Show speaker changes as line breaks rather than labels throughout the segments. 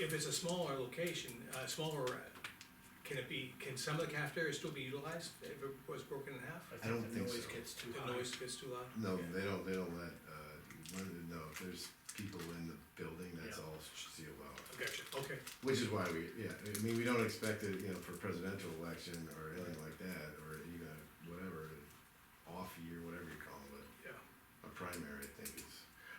If it's a smaller location, uh, smaller, uh, can it be, can some of the cafeteria still be utilized if it was broken in half?
I don't think
The noise
so.
gets too high.
The noise gets too loud?
No, they don't, they don't let, uh, when- no, if there's people in the building, that's
Yeah.
all sealed off.
Gotcha, okay,
Which is why we, yeah, I mean, we don't expect it, you know, for presidential election or anything like that, or even a whatever, off year, whatever you call it,
yeah.
a primary, I think is.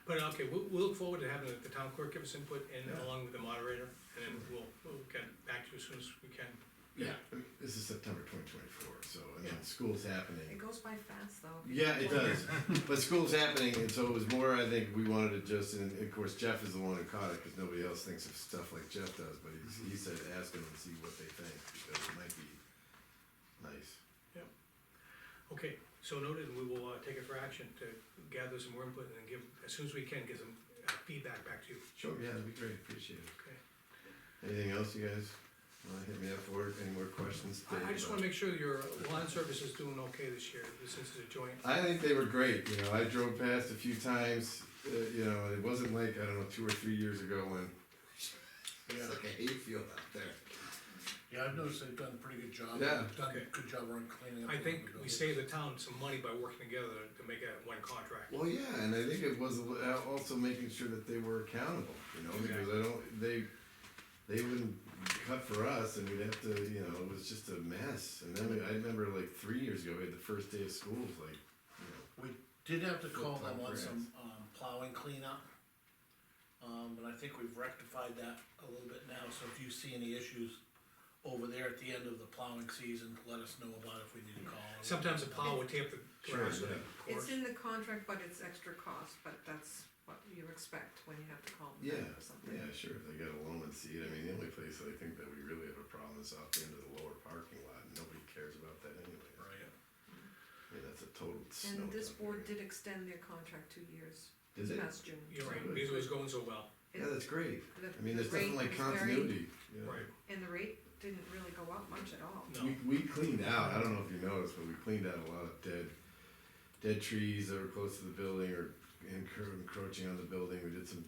But okay, we'll, we'll look forward to having the town clerk give us input and
Yeah.
along with the moderator, and then we'll, we'll get back to you as soon as we can.
Yeah, I mean, this is September twenty twenty-four, so, and then school's happening.
It goes by fast though.
Yeah, it does, but school's happening, and so it was more, I think, we wanted to just, and of course Jeff is the one who caught it, cause nobody else thinks of stuff like Jeff does, but he, he said, ask them and see what they think, because it might be nice.
Okay, so noted, and we will, uh, take it for action to gather some more input and then give, as soon as we can, give some uh, feedback back to you,
Sure, yeah, that'd be great, appreciate it.
okay?
Anything else, you guys? Wanna hit me up for, any more questions?
I- I
Dave?
just wanna make sure your lawn service is doing okay this year, since it's a joint.
I think they were great. You know, I drove past a few times. Uh, you know, it wasn't like I don't know two or three years ago when it's like a hayfield out there.
Yeah, I've noticed they've done a pretty good job.
Yeah.
They've Done
Okay.
a good job around cleaning up.
I
the
think we
buildings.
save the town some money by working together to make it one contract.
Well, yeah, and I think it was uh, also making sure that they were accountable. You know, because I don't they they wouldn't cut for us, and we'd have to. You know, it was just a mess. And then we, I remember like three years ago, we had the first day of school was like, you know,
We did have to call
Flip-flop
them on
grass.
some, um, plowing cleanup. Um, and I think we've rectified that a little bit now, so if you see any issues over there at the end of the plowing season, let us know about it if we need to call. or-
Sometimes a plow would tear up the
Sure,
grass with
yeah.
it, of
It's
course.
in the contract, but it's extra cost, but that's what you expect when you have to call them
Yeah,
back or something.
yeah, sure, if they got a loan and seed, I mean, the only place I think that we really have a problem is off the end of the lower parking lot, and nobody cares about that anyway.
Right,
I mean, that's a total snow.
And this
dump
board
area.
did extend their contract two years,
Is it?
past June.
You're right, because it was going so well,
Yeah, that's great,
The-
I mean,
the
there's nothing
rate
like
was very-
continuity, you know.
right,
And the rate didn't really go up much at all.
no,
We, we cleaned out, I don't know if you noticed, but we cleaned out a lot of dead, dead trees that were close to the building or encro- encroaching on the building, we did some,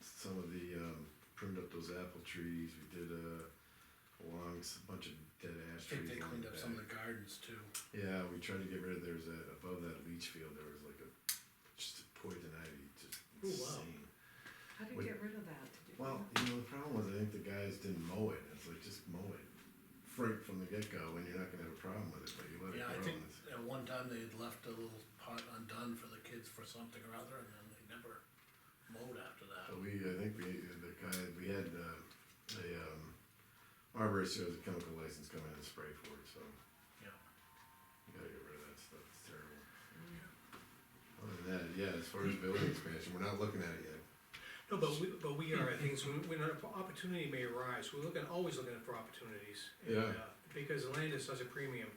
some of the, um, pruned up those apple trees, we did, uh, along s- a bunch of dead
I
ash
think
trees.
they
along
cleaned
the
up some of
back.
the gardens too.
Yeah, we tried to get rid of, there was a, above that leach field, there was like a, just a poison ivy, just
Oh, wow.
insane.
How do you
Wait.
get rid of that? Did you-
Well, you know, the problem was I think the guys didn't mow it. It's like just mow it right from the get go, and you're not gonna have a problem with it. But you let it
Yeah, I
grow.
think
and it's-
at one time they had left a little pot undone for the kids for something or other, and then they never mowed after that.
But uh, we, I think we, the guy, we had uh, a um, arborist who has a chemical license come in and spray for it. So
Yeah.
you gotta get rid of that stuff. It's terrible. Other than that, yeah, as far as building expansion, we're not looking at it yet.
no, but we, but we are, I think, so when an opportunity may arise, we're looking, always looking for opportunities. and,
Yeah.
uh, Because land is such a premium,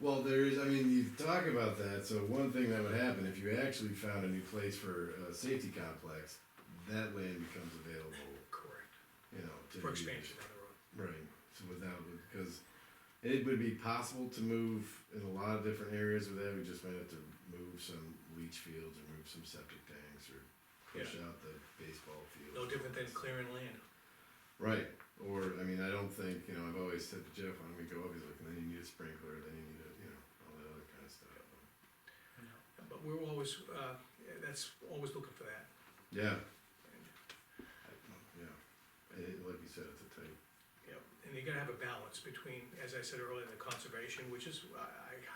Well, there is. I mean, you talk about that. So one thing that would happen if you actually found a new place for a safety complex, that land becomes available.
correct,
you know, to be-
for expansion down the road.
Right. So without because it would be possible to move in a lot of different areas with that. We just might have to move some leach fields or move some septic tanks or push out the baseball field.
No different than clearing land.
Right. Or I mean, I don't think you know. I've always said to Jeff, when we go up, he's like, then you need a sprinkler, then you need a you know all that other kind of stuff.
But we're always, uh, that's, always looking for that.
Yeah. Yeah. It, like you said, it's a tight.
Yep, and you gotta have a balance between, as I said earlier, the conservation, which is, uh, I, I,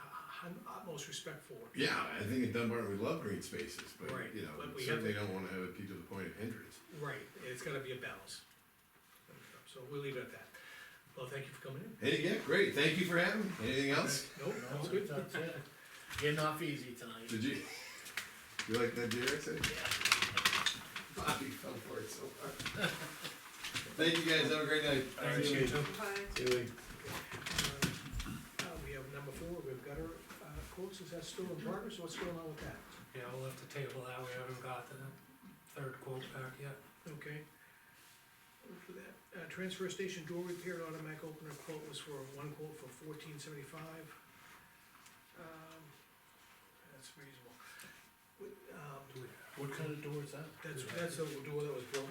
I'm utmost respect for.
Yeah, I think at Dunbar we love green spaces, but
Right,
you know,
but we
we
have
certainly don't want to have it be to the point of hindrance.
Right, it's gotta be a balance. So we'll leave it at that. Well, thank you for coming in.
Hey, yeah, great. Thank you for having. me. Anything else?
Nope,
No,
that's good.
that's it. Getting off easy tonight.
Did you? You like that deer I said? Bobby fell for it so hard. Thank you guys. Have a great night.
Thanks, you too.
Bye.
Anyway.
Uh, we have number four, we've got our, uh, quotes, is that still in progress, what's going on with that?
Yeah, we'll have to table that, we haven't got the third quote back yet.
Okay. Look for that. Uh, transfer station door repair and automatic opener quote was for, one quote for fourteen seventy-five. Um, that's reasonable. With, um,
What kind of door is that?
that's, that's the door that was broken